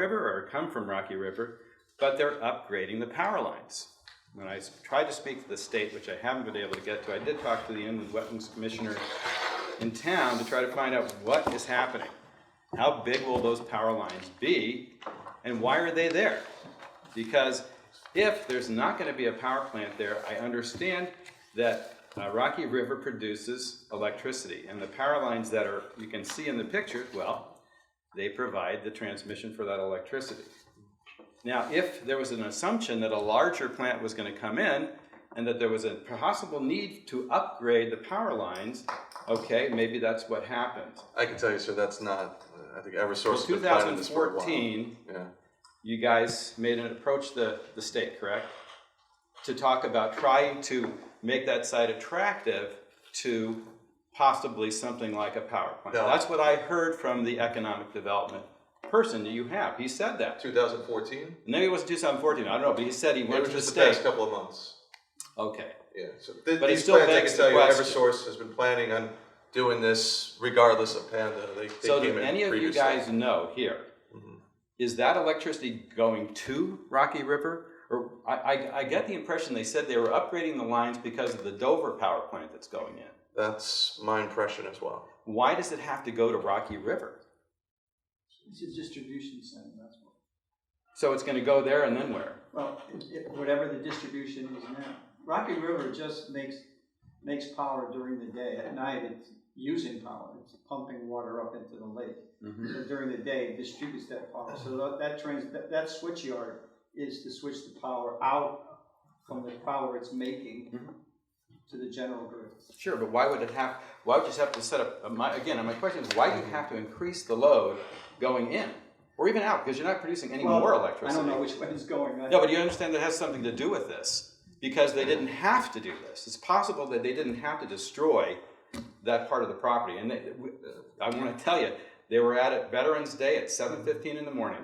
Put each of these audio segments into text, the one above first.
River or come from Rocky River, but they're upgrading the power lines. When I s- tried to speak to the state, which I haven't been able to get to, I did talk to the inland wetlands commissioner in town to try to find out what is happening. How big will those power lines be, and why are they there? Because if there's not gonna be a power plant there, I understand that uh, Rocky River produces electricity, and the power lines that are, you can see in the picture, well, they provide the transmission for that electricity. Now, if there was an assumption that a larger plant was gonna come in, and that there was a possible need to upgrade the power lines, okay, maybe that's what happened. I can tell you, sir, that's not, uh, I think In Eversource has two been planning thousand this for a while. fourteen, Yeah, you guys made an approach the, the state, correct? To talk about trying to make that site attractive to possibly something like a power plant. No. That's what I heard from the economic development person that you have. He said that. two thousand fourteen? Maybe it was two thousand fourteen, I don't know, but he said he It went was to the just the past state. couple of months. Okay, Yeah, so th- But it these still plans, I begs can the tell you, question. Eversource has been planning on doing this regardless of Panda. They, they so came do in any of you previously. Mm-hmm. guys know here, is that electricity going to Rocky River? Or, I, I, I get the impression they said they were upgrading the lines because of the Dover power plant that's going in. That's my impression as well. why does it have to go to Rocky River? It's a distribution center, that's what. So it's going to go there and then where? Well, it- it- whatever the distribution is now. Rocky River just makes, makes power during the day. At night, it's using power. It's pumping water up into the lake. But during the day, it distributes that power. So that, that trans, that, that switch yard is to switch the power out from the power it's making to the general grid. Sure, but why would it have? Why would you have to set up? uh, My, again, my question is why do Mm-hmm. you have to increase the load going in or even out because you're not producing any Well, more electricity? I don't know which way it's going. I- No, but you understand that has something to do with this because they didn't have to do this. It's possible that they didn't have to destroy that part of the property. And they, uh, I want to tell you, they were at it Veterans Day at 7:15 in the morning,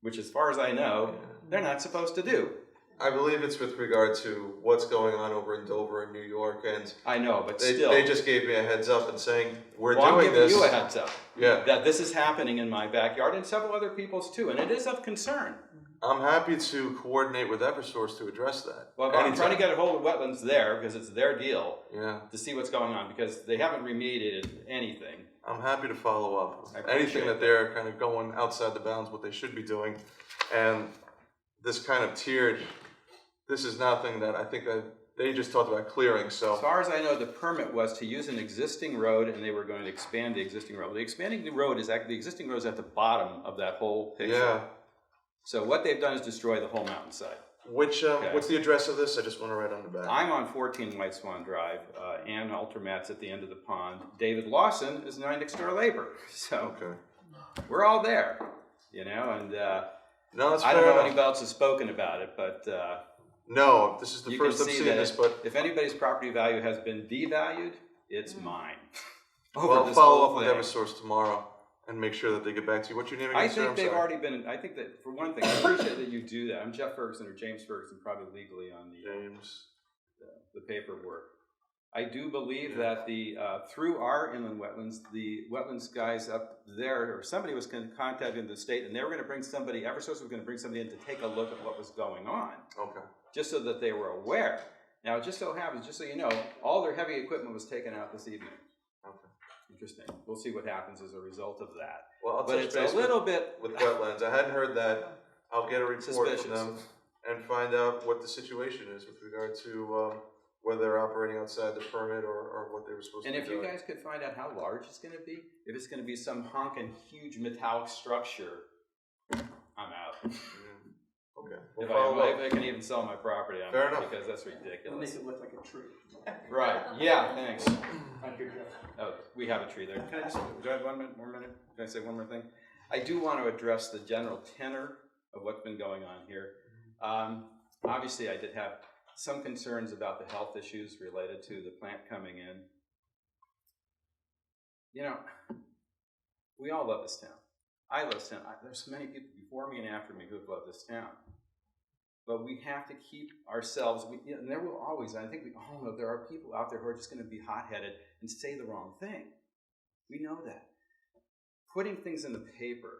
which, as far as I know, they're not supposed to do. I believe it's with regard to what's going on over in Dover and New York, and I know, but they, still. they just gave me a heads up and saying we're well, I'm doing giving this. you a heads up yeah, that this is happening in my backyard and several other people's too, and it is of concern. I'm happy to coordinate with Eversource to address that. Well, I'm trying to get a hold of wetlands there because it's their deal Yeah, to see what's going on because they haven't remediated anything. I'm happy to follow I up. with appreciate Anything that they're kind of going outside the bounds what they should be doing, and this kind of tiered, this is nothing that I think that they just talked about clearing. As So far as I know, the permit was to use an existing road, and they were going to expand the existing road. The expanding the road is act the existing road is at the bottom of that whole picture. yeah, So what they've done is destroy the whole mountainside. which um, Okay. what's the address of this? I just want to write on the back. I'm on 14 White Swan Drive. Uh, Ann Altermat's at the end of the pond. David Lawson is nine next door labor. So okay. we're all there, you know. And uh, No, that's I fair don't know enough. anybody else has spoken about it, but uh, No, this is the you first can I'm see seeing that this, but if anybody's property value has been devalued, it's mine. Over well, this follow whole up with thing. Eversource tomorrow and make sure that they get back to you. What's your name again, I sir? think I'm they've sorry. already been. I think that for one thing, I appreciate that you do that. I'm Jeff Ferguson or James Ferguson, probably legally on the James. the paperwork. I do believe that the uh, through our inland wetlands, the wetlands guys up there or somebody was con- contacting the state, and they were going to bring somebody. EverSource was going to bring somebody in to take a look at what was going on, Okay. just so that they were aware. Now, it just so happens, just so you know, all their heavy equipment was taken out this evening. Okay. Interesting. We'll see what happens as a result of that. Well, I'll But touch it's base a little bit with, with wetlands. I hadn't heard that. I'll get a report suspicious. from them and find out what the situation is with regard to um, whether they're operating outside the permit or, or what they were supposed And to if be you doing. guys could find out how large it's gonna be, if it's gonna be some honking huge metallic structure, I'm out. Yeah. Mm-hmm. Okay. We'll If I, if follow up. I can even sell my property, I'm Fair out, enough. because that's It'll make ridiculous. it look like a tree. Right, yeah, thanks. Thank you, Jeff. Oh, we have a tree there. Can I just, do I have one minute, more minute? Can I say one more thing? I do want to address the general tenor of what's been going on here. Um, obviously, I did have some concerns about the health issues related to the plant coming in. You know, we all love this town. I love this town. I, there's many people before me and after me who have loved this town. But we have to keep ourselves, we, you know, and there will always, I think we all know, there are people out there who are just going to be hot headed and say the wrong thing. We know that. Putting things in the paper